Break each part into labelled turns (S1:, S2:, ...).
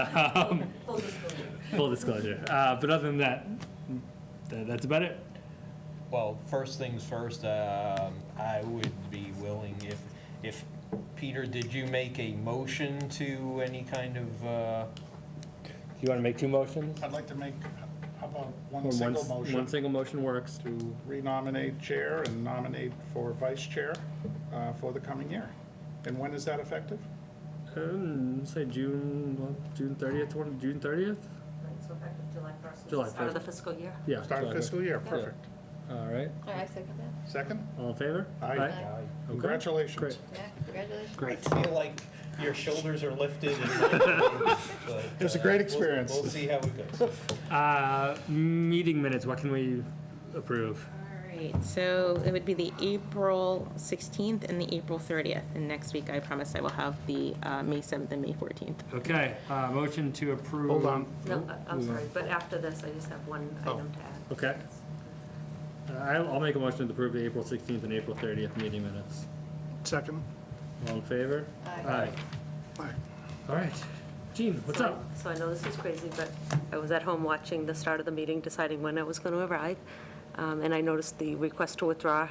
S1: Um,
S2: Full disclosure.
S1: Full disclosure. Uh, But other than that, tha- that's about it.
S3: Well, first things first, um, I would be willing, if, if, Peter, did you make a motion to any kind of, uh,
S1: You want to make two motions?
S4: I'd like to make, how about one
S1: Or one
S4: single
S1: s- One
S4: motion
S1: single motion works.
S4: to renominate chair and nominate for vice chair uh, for the coming year? And when is that effective?
S1: Um, Say June, well, June 30th, one- June 30th?
S2: Right, So effective July 1st.
S1: July
S2: Start of
S1: 1st.
S2: the fiscal year.
S1: Yeah.
S4: Start of
S1: July
S4: fiscal year, perfect.
S1: fifth. All right.
S5: I second that.
S4: Second?
S1: All in favor?
S4: Aye.
S1: Okay. Great.
S4: Congratulations.
S5: Yeah, congratulations.
S3: I
S1: Great.
S3: feel like your shoulders are lifted. It
S4: It was a great experience.
S3: uh, We'll see how it goes.
S1: Uh, Meeting minutes, what can we approve?
S6: All right, so it would be the April 16th and the April 30th. And next week, I promise I will have the uh, May 7th and May 14th.
S1: Okay, uh, motion to approve.
S4: Hold on.
S2: No, I- I'm
S1: Mm-hmm.
S2: sorry, but after this, I just have one
S1: Oh.
S2: item to add.
S1: Okay. Uh, I'll I'll make a motion to approve the April 16th and April 30th meeting minutes.
S4: Second?
S1: All in favor?
S5: Aye.
S4: Aye.
S1: All right. Gene, what's
S2: So I-
S1: up?
S2: So I know this is crazy, but I was at home watching the start of the meeting, deciding when it was going to arrive, um, and I noticed the request to withdraw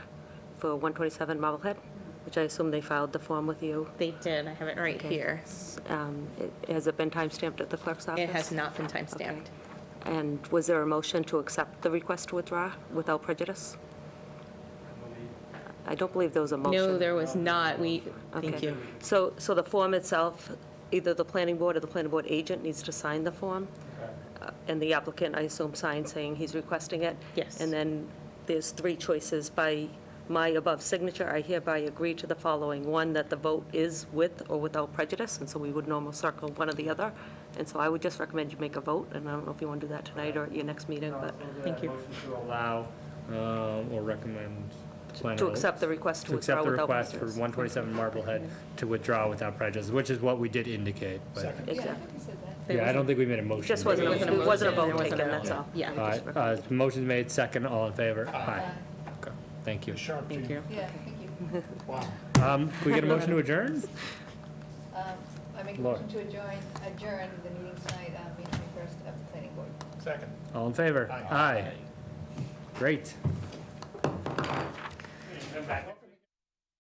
S2: for 127 Marblehead, which I assume they filed the form with you.
S6: They did, I have it right here.
S2: Um, it- Has it been timestamped at the clerk's office?
S6: It has not been timestamped.
S2: And was there a motion to accept the request to withdraw without prejudice? I don't believe there was a motion.
S6: No, there was not, we, thank
S2: Okay.
S6: you.
S2: So, so the form itself, either the planning board or the planning board agent needs to sign the form? Uh, And the applicant, I assume, signs saying he's requesting it?
S6: Yes.
S2: And then there's three choices. By my above signature, I hereby agree to the following. One, that the vote is with or without prejudice, and so we would normally circle one or the other. And so I would just recommend you make a vote, and I don't know if you want to do that tonight or at your next meeting, but
S6: Thank you.
S1: Allow um, or recommend. planning
S2: to
S1: board-
S2: accept the request to
S1: To
S2: withdraw
S1: accept the
S2: without
S1: request
S2: prejudice.
S1: for 127 Marblehead to withdraw without prejudice, which is what we did indicate, but,
S4: Second.
S5: Yeah, I
S2: Exactly.
S5: think you said that.
S6: There
S1: yeah, I
S6: was-
S1: don't think we made a motion.
S2: Just wasn't,
S6: wasn't a
S2: it wasn't a
S6: motion,
S2: vote
S6: there wasn't
S2: taken,
S6: a
S2: that's all.
S6: motion. Yeah.
S1: All right, uh, motion's made, second, all in favor? Aye. Okay, Thank you.
S4: Sharp,
S6: Thank
S4: Gene.
S6: you.
S5: Yeah, thank you.
S4: Wow.
S1: Um, can we get a motion to adjourn?
S5: Um, I make a
S1: Laura.
S5: motion to adjourn, adjourn the meeting tonight, uh, May 21st of the planning board.
S4: Second.
S1: All in favor?
S4: Aye.
S1: Aye. Great.